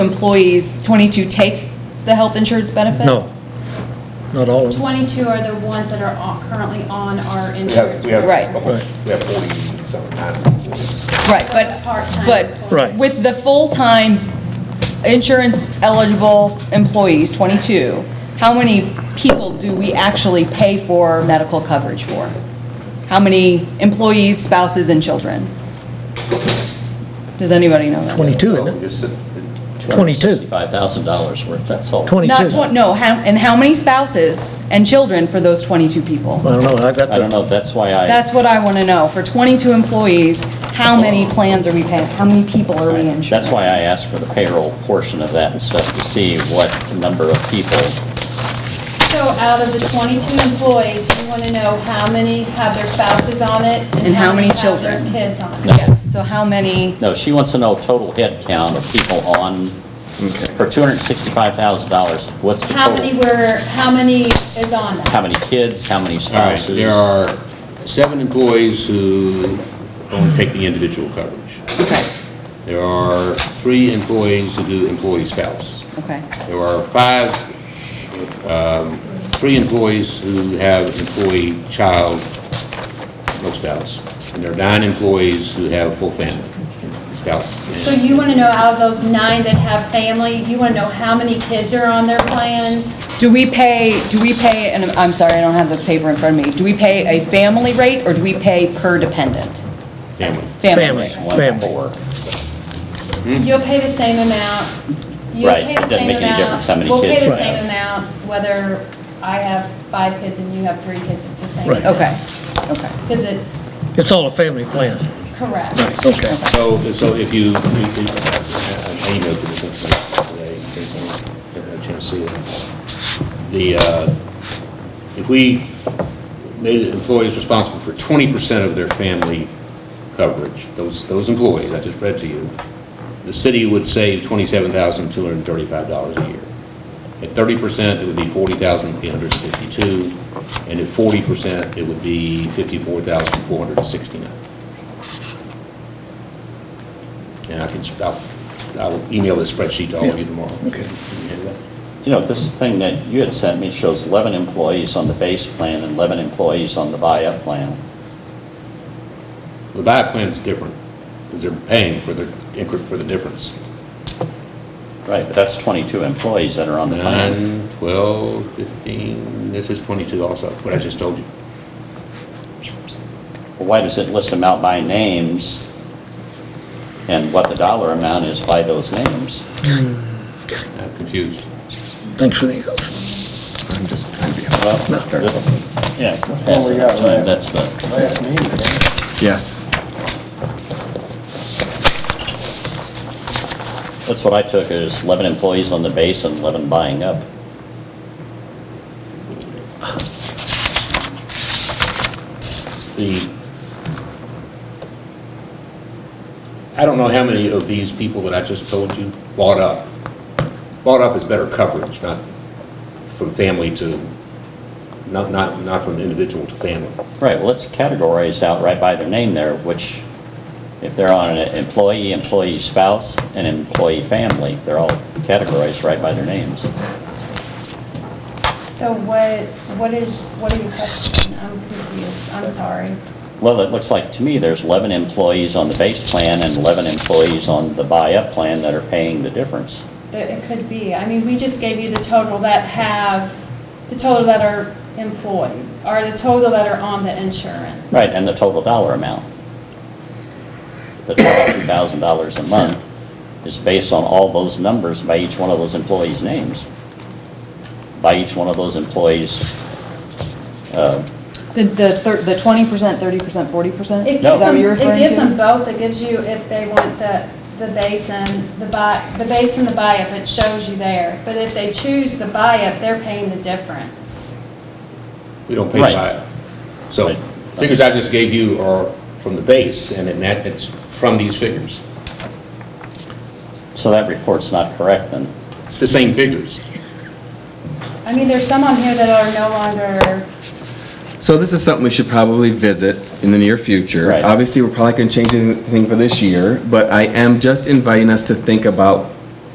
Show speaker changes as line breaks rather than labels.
employees, 22 take the health insurance benefit?
No, not all of them.
22 are the ones that are on- currently on our
We have,
insurance.
we have,
Right.
almost- we have 40 something, nine employees.
Right,
But
but,
part-time
but.
Right.
With the full-time insurance eligible employees, 22, how many people do we actually pay for medical coverage for? How many employees, spouses, and children? Does anybody know that?
22,
Well, we
isn't it?
just said-
Twenty-two.
$265,000 worth, that's all.
22.
Not 20, no, how, and how many spouses and children for those 22
I
people?
don't know, I got
I don't
the,
know, that's why I,
That's what I want to know. For 22 employees, how many plans are we paying? How many people are we insuring?
that's why I asked for the payroll portion of that and stuff to see what the number of people,
So out of the 22 employees, you want to know how many have their spouses on it?
And how many
have their
children?
kids on it.
Yeah, so how many,
no, she wants to know total head count of people on, for $265,000, what's the
How many
total?
were, how many is on that?
How many kids, how many
All right,
spouses?
there are seven employees who only take the individual coverage.
okay,
There are three employees who do employee spouse.
okay.
There are five, um, three employees who have employee child, no spouse. And there are nine employees who have a full family, spouse. and-
So you want to know out of those nine that have family, you want to know how many kids are on their plans?
Do we pay, do we pay, and I'm- I'm sorry, I don't have the paper in front of me, do we pay a family rate or do we pay per dependent?
Family.
Family
Family.
rate.
One
Family.
four.
Hmm.
You'll pay the same amount. You'll
Right,
pay the
doesn't
same
make any
amount.
difference how many
We'll
kids
pay
you
the
have.
same amount, whether I have five kids and you have three kids, it's the same.
Right.
Okay, okay,
Because it's
it's all a family plan.
correct.
Right, okay.
So, so if you, you- you- I I emailed you this information today, in case anyone had a chance to see it. The, uh, if we made employees responsible for 20% of their family coverage, those, those employees, I just read to you, the city would save $27,235 a year. At 30%, it would be 40,852, and at 40%, it would be 54,469. And I can, I'll, I'll email this spreadsheet to all of you tomorrow. Okay.
You know, this thing that you had sent me shows 11 employees on the base plan and 11 employees on the buy-up plan.
The buyout plan is different, because they're paying for the, incre- for the difference.
Right, but that's 22 employees that are on the plan.
Nine, twelve, fifteen, this is twenty-two also, what I just told you.
Well, Why does it list them out by names and what the dollar amount is by those names?
I'm confused.
Thanks for the help.
I'm just trying to be
Well, Yeah, pass it up to him, that's the,
Yes.
that's what I took, is 11 employees on the base and 11 buying up.
The, I don't know how many of these people that I just told you bought up. Bought up is better coverage, not from family to, not, not, not from individual to family.
Right, well, let's categorize out right by their name there, which, if they're on an employee, employee spouse, and employee family, they're all categorized right by their names.
So what, what is, what are your questions? I'm confused, I'm sorry.
Well, it looks like to me there's 11 employees on the base plan and 11 employees on the buy-up plan that are paying the difference.
It it could be, I mean, we just gave you the total that have, the total that are employed, or the total that are on the insurance.
Right, and the total dollar amount. The $22,000 a month is based on all those numbers by each one of those employees' names, by each one of those employees' uh,
The, the thir- the 20%, 30%, 40%?
It
Is
gives
that
them,
what you're
it
referring
gives
to?
them both, it gives you, if they want the, the base and the buy, the base and the buy-up, it shows you there. But if they choose the buy-up, they're paying the difference.
We don't pay the
Right.
buyout. So
Right.
figures I just gave you are from the base, and then that, it's from these figures.
So that report's not correct then?
It's the same figures.
I mean, there's some on here that are no longer,
So this is something we should probably visit in the near future.
Right.
Obviously, we're probably going to change anything for this year, but I am just inviting us to think about